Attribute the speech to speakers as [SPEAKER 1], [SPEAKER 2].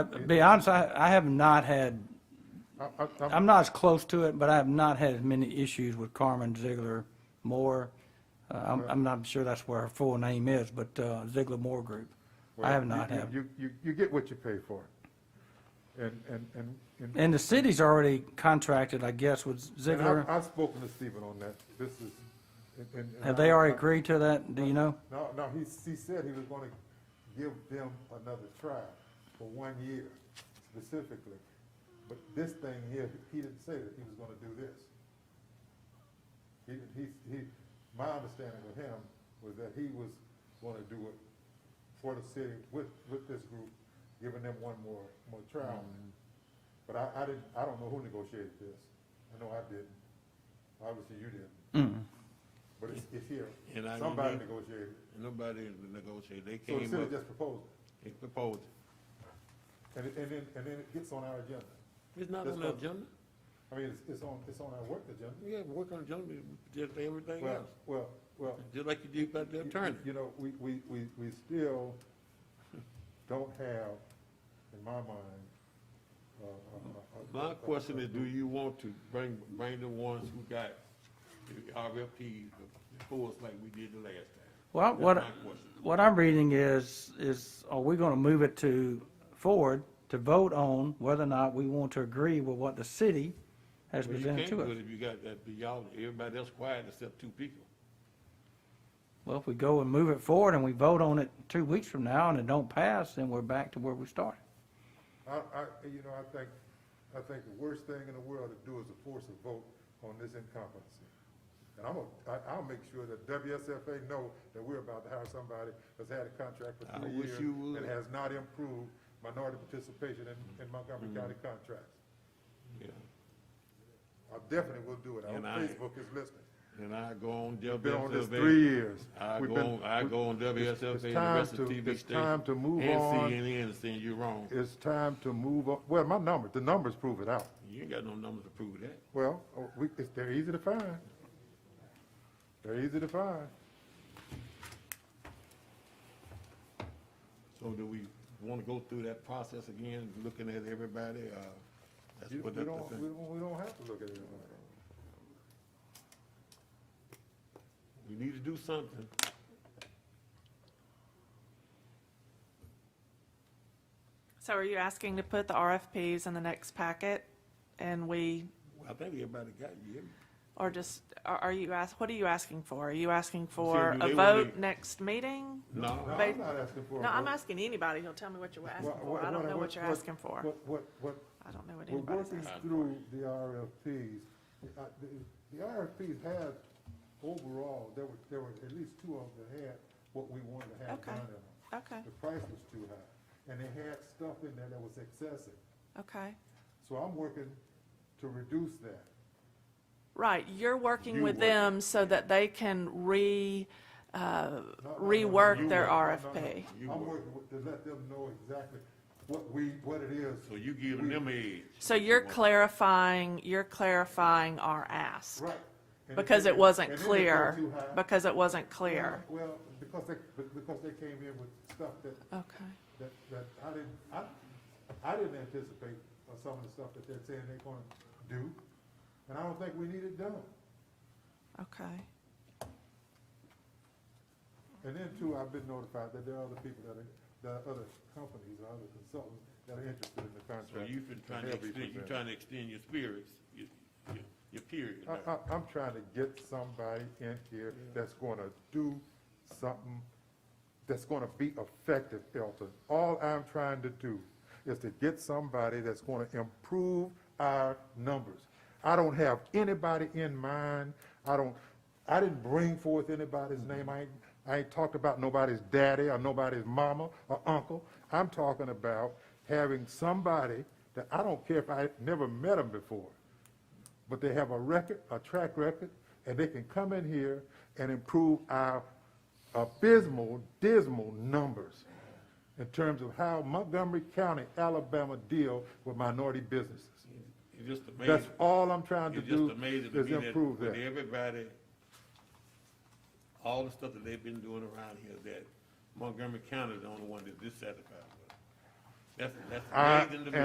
[SPEAKER 1] To Be honest, I, I have not had,
[SPEAKER 2] I- I- I'm-
[SPEAKER 1] I'm not as close to it, but I have not had as many issues with Carmen Ziegler Moore. Uh, I'm, I'm not sure that's where her full name is, but, uh, Ziegler Moore Group. I have
[SPEAKER 2] you-
[SPEAKER 1] not
[SPEAKER 2] you-
[SPEAKER 1] had.
[SPEAKER 2] You, you, you get what you pay for. And, and, and- and,
[SPEAKER 1] And the city's already contracted, I guess, with
[SPEAKER 2] and I've,
[SPEAKER 1] Ziegler.
[SPEAKER 2] I've spoken to Stephen on that. This is. and- and- and
[SPEAKER 1] Have
[SPEAKER 2] I-
[SPEAKER 1] they already
[SPEAKER 2] I-
[SPEAKER 1] agreed to that? Do you know?
[SPEAKER 2] No, no, he, he said he was gonna give them another try for one year specifically. But this thing here, he didn't say that he was gonna do this. He, he, he, my understanding of him was that he was gonna do it for the city with, with this group, giving them one more, more try on it. But I, I didn't, I don't know who negotiated this. I know I didn't. Obviously, you didn't. But it's, it's here.
[SPEAKER 3] And I
[SPEAKER 2] Somebody
[SPEAKER 3] remember-
[SPEAKER 2] negotiated. it.
[SPEAKER 3] Nobody negotiated, they
[SPEAKER 2] So the
[SPEAKER 3] came
[SPEAKER 2] city
[SPEAKER 3] up,
[SPEAKER 2] just proposed it.
[SPEAKER 3] they proposed it.
[SPEAKER 2] And, it- and then, and then it gets on our agenda.
[SPEAKER 3] It's not
[SPEAKER 2] That's
[SPEAKER 3] on the
[SPEAKER 2] what-
[SPEAKER 3] agenda,
[SPEAKER 2] I mean, it's, it's on, it's on our work agenda.
[SPEAKER 3] yeah, work on the agenda, just everything
[SPEAKER 2] Well,
[SPEAKER 3] else,
[SPEAKER 2] well, well.
[SPEAKER 3] just like you did about the
[SPEAKER 2] you-
[SPEAKER 3] attorney.
[SPEAKER 2] You know, we, we, we, we still don't have, in my mind, uh, uh, uh,
[SPEAKER 3] My question is, do you want to bring, bring the ones who got the RFP before us like we did the last time?
[SPEAKER 1] Well, what,
[SPEAKER 3] That's my question.
[SPEAKER 1] what I'm reading is, is are we gonna move it to, forward to vote on whether or not we want to agree with what the city has
[SPEAKER 3] Well, you
[SPEAKER 1] presented
[SPEAKER 3] can't
[SPEAKER 1] to
[SPEAKER 3] do
[SPEAKER 1] us?
[SPEAKER 3] it if you got that, y'all, everybody else quiet except two people.
[SPEAKER 1] Well, if we go and move it forward and we vote on it two weeks from now and it don't pass, then we're back to where we started.
[SPEAKER 2] I, I, you know, I think, I think the worst thing in the world to do is to force a vote on this incompetency. And I'm, gonna- I, I'll make sure that WSFA know that we're about to hire somebody that's had a contract for
[SPEAKER 3] I
[SPEAKER 2] three
[SPEAKER 3] wish
[SPEAKER 2] years
[SPEAKER 3] you would.
[SPEAKER 2] and has not improved minority participation in, in Montgomery
[SPEAKER 3] Mm-hmm.
[SPEAKER 2] County contracts.
[SPEAKER 3] Yeah.
[SPEAKER 2] I definitely will do it. I hope
[SPEAKER 3] And I-
[SPEAKER 2] Facebook is listening.
[SPEAKER 3] And I go on
[SPEAKER 2] We've been on this
[SPEAKER 3] WSFA.
[SPEAKER 2] three years.
[SPEAKER 3] I
[SPEAKER 2] We've
[SPEAKER 3] go
[SPEAKER 2] been-
[SPEAKER 3] on, I
[SPEAKER 2] we-
[SPEAKER 3] go on
[SPEAKER 2] it's-
[SPEAKER 3] WSFA
[SPEAKER 2] it's
[SPEAKER 3] and the
[SPEAKER 2] time
[SPEAKER 3] rest of
[SPEAKER 2] to-
[SPEAKER 3] the TV
[SPEAKER 2] it's
[SPEAKER 3] stations.
[SPEAKER 2] time to move on.
[SPEAKER 3] And CNN saying you're wrong.
[SPEAKER 2] It's time to move on. Well, my number, the numbers prove it out.
[SPEAKER 3] You ain't got no numbers to prove that.
[SPEAKER 2] Well, oh, we, it's, they're easy to find. They're easy to find.
[SPEAKER 3] So do we want to go through that process again, looking at everybody, uh, that's
[SPEAKER 2] You-
[SPEAKER 3] what
[SPEAKER 2] we
[SPEAKER 3] that's
[SPEAKER 2] don't,
[SPEAKER 3] the
[SPEAKER 2] we
[SPEAKER 3] thing.
[SPEAKER 2] don't, we don't have to look at it.
[SPEAKER 3] We need to do something.
[SPEAKER 4] So are you asking to put the RFPs in the next packet and we,
[SPEAKER 3] I think everybody got you.
[SPEAKER 4] or just, are are you ask, what are you asking for? Are you asking for
[SPEAKER 3] do
[SPEAKER 4] a
[SPEAKER 3] they
[SPEAKER 4] vote
[SPEAKER 3] wanna-
[SPEAKER 4] next meeting?
[SPEAKER 2] No,
[SPEAKER 3] No,
[SPEAKER 4] But-
[SPEAKER 2] I'm not asking for a
[SPEAKER 4] No, I'm
[SPEAKER 2] vote.
[SPEAKER 4] asking anybody, he'll tell me what you're asking
[SPEAKER 2] What-
[SPEAKER 4] for. I don't know what you're asking for.
[SPEAKER 2] What, what, what,
[SPEAKER 4] I don't know what
[SPEAKER 2] we're
[SPEAKER 4] anybody's
[SPEAKER 2] working
[SPEAKER 4] asking.
[SPEAKER 2] through the RFPs. The- uh, The the RFPs had, overall, there were, there were at least two of them that had what we wanted to have
[SPEAKER 4] Okay.
[SPEAKER 2] done in them.
[SPEAKER 4] Okay,
[SPEAKER 2] The price was too high, and they had stuff in there that was excessive.
[SPEAKER 4] okay.
[SPEAKER 2] So I'm working to reduce that.
[SPEAKER 4] Right, you're working
[SPEAKER 3] You
[SPEAKER 4] with
[SPEAKER 3] work.
[SPEAKER 4] them so that they can re, uh,
[SPEAKER 2] No, no, no, no,
[SPEAKER 4] rework
[SPEAKER 2] you
[SPEAKER 4] their
[SPEAKER 2] work. No, no, no.
[SPEAKER 4] RFP.
[SPEAKER 3] You
[SPEAKER 2] I'm
[SPEAKER 3] work.
[SPEAKER 2] working with- to let them know exactly what we, what it is.
[SPEAKER 3] so you giving them age.
[SPEAKER 4] So you're clarifying, you're clarifying our ask.
[SPEAKER 2] Right. And
[SPEAKER 4] Because
[SPEAKER 2] and
[SPEAKER 4] it wasn't
[SPEAKER 2] and then they go
[SPEAKER 4] clear,
[SPEAKER 2] too high.
[SPEAKER 4] because it wasn't clear.
[SPEAKER 2] Well, because they, be- because they came in with stuff that,
[SPEAKER 4] Okay,
[SPEAKER 2] that, that I didn't, I, I didn't anticipate uh, some of the stuff that they're saying they're gonna do, and I don't think we need it done.
[SPEAKER 4] okay.
[SPEAKER 2] And then too, I've been notified that there are other people that are, there are other companies, or other consultants that are interested in the
[SPEAKER 3] So
[SPEAKER 2] contract.
[SPEAKER 3] you've been trying
[SPEAKER 2] and
[SPEAKER 3] to
[SPEAKER 2] they'll be
[SPEAKER 3] extend, you're
[SPEAKER 2] presented.
[SPEAKER 3] trying to extend your spirits, your, your- your period.
[SPEAKER 2] I,
[SPEAKER 3] now.
[SPEAKER 2] I, I'm trying to get somebody in here that's gonna do something that's gonna be effective, Elton. All I'm trying to do is to get somebody that's gonna improve our numbers. I don't have anybody in mind. I don't, I didn't bring forth anybody's name. I ain't, I ain't talked about nobody's daddy or nobody's mama or uncle. I'm talking about having somebody that I don't care if I never met them before but they have a record, a track record, and they can come in here and improve our abysmal, dismal numbers in terms of how Montgomery County, Alabama deal with minority businesses.
[SPEAKER 3] It's just amazing.
[SPEAKER 2] That's all I'm trying to
[SPEAKER 3] It's just
[SPEAKER 2] do
[SPEAKER 3] amazing to
[SPEAKER 2] is
[SPEAKER 3] me that
[SPEAKER 2] improve
[SPEAKER 3] with
[SPEAKER 2] that.
[SPEAKER 3] everybody, all the stuff that they've been doing around here, that Montgomery County is the only one that's dissatisfied with. That's, that's
[SPEAKER 2] I-
[SPEAKER 3] amazing to me.